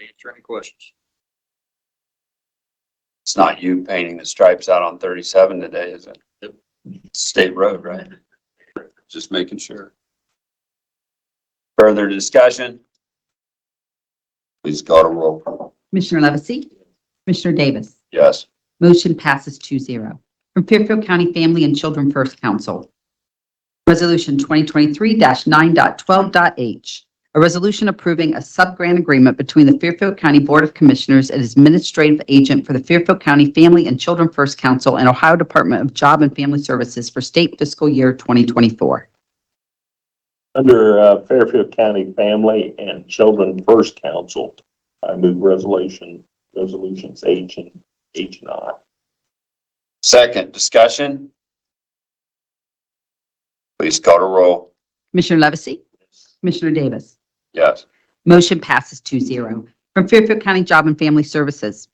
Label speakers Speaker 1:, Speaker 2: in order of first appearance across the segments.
Speaker 1: Answer any questions?
Speaker 2: It's not you painting the stripes out on thirty-seven today, is it?
Speaker 1: Yep.
Speaker 2: State road, right? Just making sure. Further discussion? Please go to roll.
Speaker 3: Commissioner Levesey? Commissioner Davis?
Speaker 2: Yes.
Speaker 3: Motion passes 2-0. From Fairfield County Family and Children First Council, Resolution 2023-9.12.h, a resolution approving a subgrant agreement between the Fairfield County Board of Commissioners and Administrative Agent for the Fairfield County Family and Children First Council and Ohio Department of Job and Family Services for state fiscal year 2024.
Speaker 4: Under uh, Fairfield County Family and Children First Council, I move resolution, resolutions H and H and I.
Speaker 2: Second discussion? Please go to roll.
Speaker 3: Commissioner Levesey? Commissioner Davis?
Speaker 2: Yes.
Speaker 3: Motion passes 2-0. From Fairfield County Job and Family Services,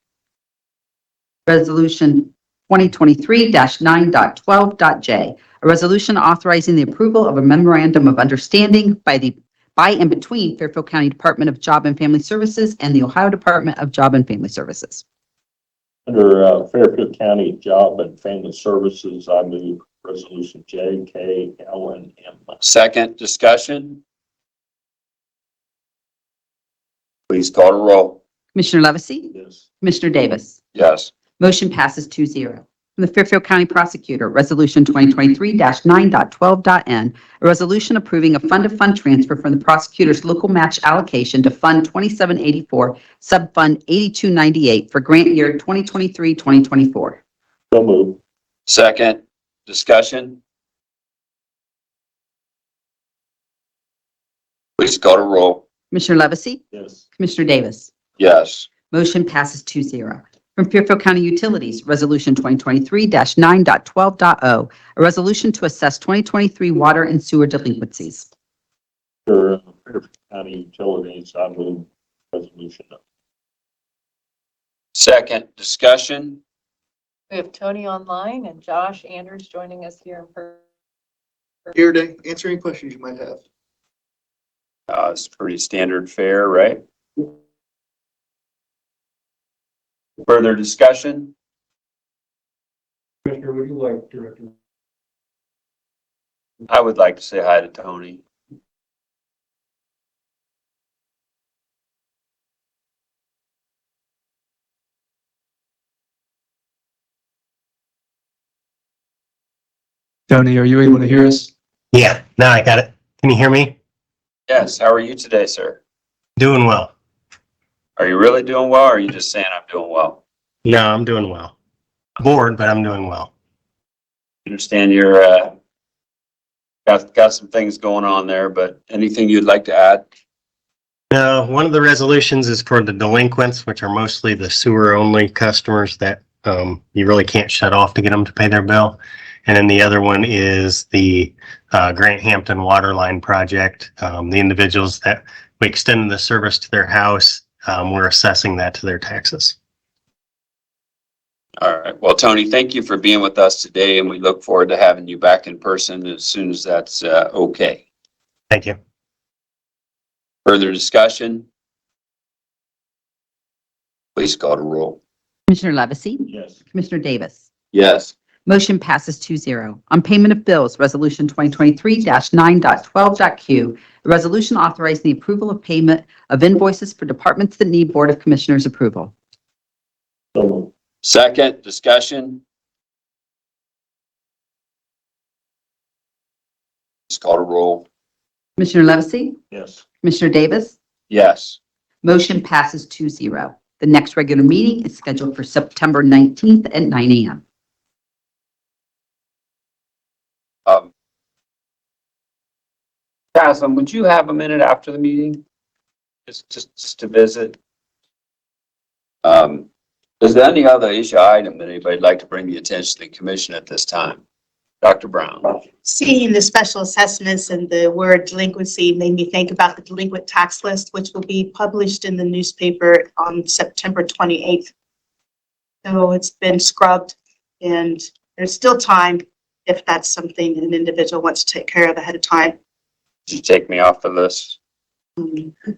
Speaker 3: Resolution 2023-9.12.j, a resolution authorizing the approval of a memorandum of understanding by the, by and between Fairfield County Department of Job and Family Services and the Ohio Department of Job and Family Services.
Speaker 4: Under uh, Fairfield County Job and Family Services, I move resolution J, K, L, and M.
Speaker 2: Second discussion? Please go to roll.
Speaker 3: Commissioner Levesey?
Speaker 4: Yes.
Speaker 3: Commissioner Davis?
Speaker 2: Yes.
Speaker 3: Motion passes 2-0. From the Fairfield County Prosecutor, Resolution 2023-9.12.n, a resolution approving a fund-to-fund transfer from the prosecutor's local match allocation to Fund 2784, Subfund 8298 for grant year 2023-2024.
Speaker 4: So move.
Speaker 2: Second discussion? Please go to roll.
Speaker 3: Commissioner Levesey?
Speaker 4: Yes.
Speaker 3: Commissioner Davis?
Speaker 2: Yes.
Speaker 3: Motion passes 2-0. From Fairfield County Utilities, Resolution 2023-9.12.o, a resolution to assess 2023 water and sewer delinquencies.
Speaker 4: Under uh, Fairfield County Utilities, I move resolution
Speaker 2: Second discussion?
Speaker 5: We have Tony online and Josh Anders joining us here in person.
Speaker 1: Here to answer any questions you might have.
Speaker 2: Uh, it's pretty standard fare, right? Further discussion?
Speaker 6: Commissioner, would you like Director?
Speaker 2: I would like to say hi to Tony.
Speaker 6: Tony, are you able to hear us?
Speaker 7: Yeah, now I got it. Can you hear me?
Speaker 2: Yes, how are you today, sir?
Speaker 7: Doing well.
Speaker 2: Are you really doing well or are you just saying I'm doing well?
Speaker 7: No, I'm doing well. Bored, but I'm doing well.
Speaker 2: Understand you're, uh, got, got some things going on there, but anything you'd like to add?
Speaker 7: Now, one of the resolutions is for the delinquents, which are mostly the sewer only customers that um, you really can't shut off to get them to pay their bill. And then the other one is the uh, Grant Hampton Water Line Project. Um, the individuals that we extend the service to their house, um, we're assessing that to their taxes.
Speaker 2: All right. Well, Tony, thank you for being with us today and we look forward to having you back in person as soon as that's, uh, okay.
Speaker 7: Thank you.
Speaker 2: Further discussion? Please call to roll.
Speaker 3: Commissioner Levesey?
Speaker 4: Yes.
Speaker 3: Commissioner Davis?
Speaker 2: Yes.
Speaker 3: Motion passes 2-0. On payment of bills, Resolution 2023-9.12.q, a resolution authorizing the approval of payment of invoices for departments that need Board of Commissioners approval.
Speaker 4: So move.
Speaker 2: Second, discussion? Please call to roll.
Speaker 3: Commissioner Levesey?
Speaker 4: Yes.
Speaker 3: Commissioner Davis?
Speaker 2: Yes.
Speaker 3: Motion passes 2-0. The next regular meeting is scheduled for September 19th at 9 a.m.
Speaker 2: Um, Taslim, would you have a minute after the meeting? Just, just, just to visit? Um, is there any other issue item that anybody'd like to bring the attention of the commission at this time? Dr. Brown?
Speaker 8: Seeing the special assessments and the word delinquency made me think about the delinquent tax list, which will be published in the newspaper on September 28th. So it's been scrubbed and there's still time if that's something an individual wants to take care of ahead of time.
Speaker 2: Did you take me off the list?
Speaker 8: Mm,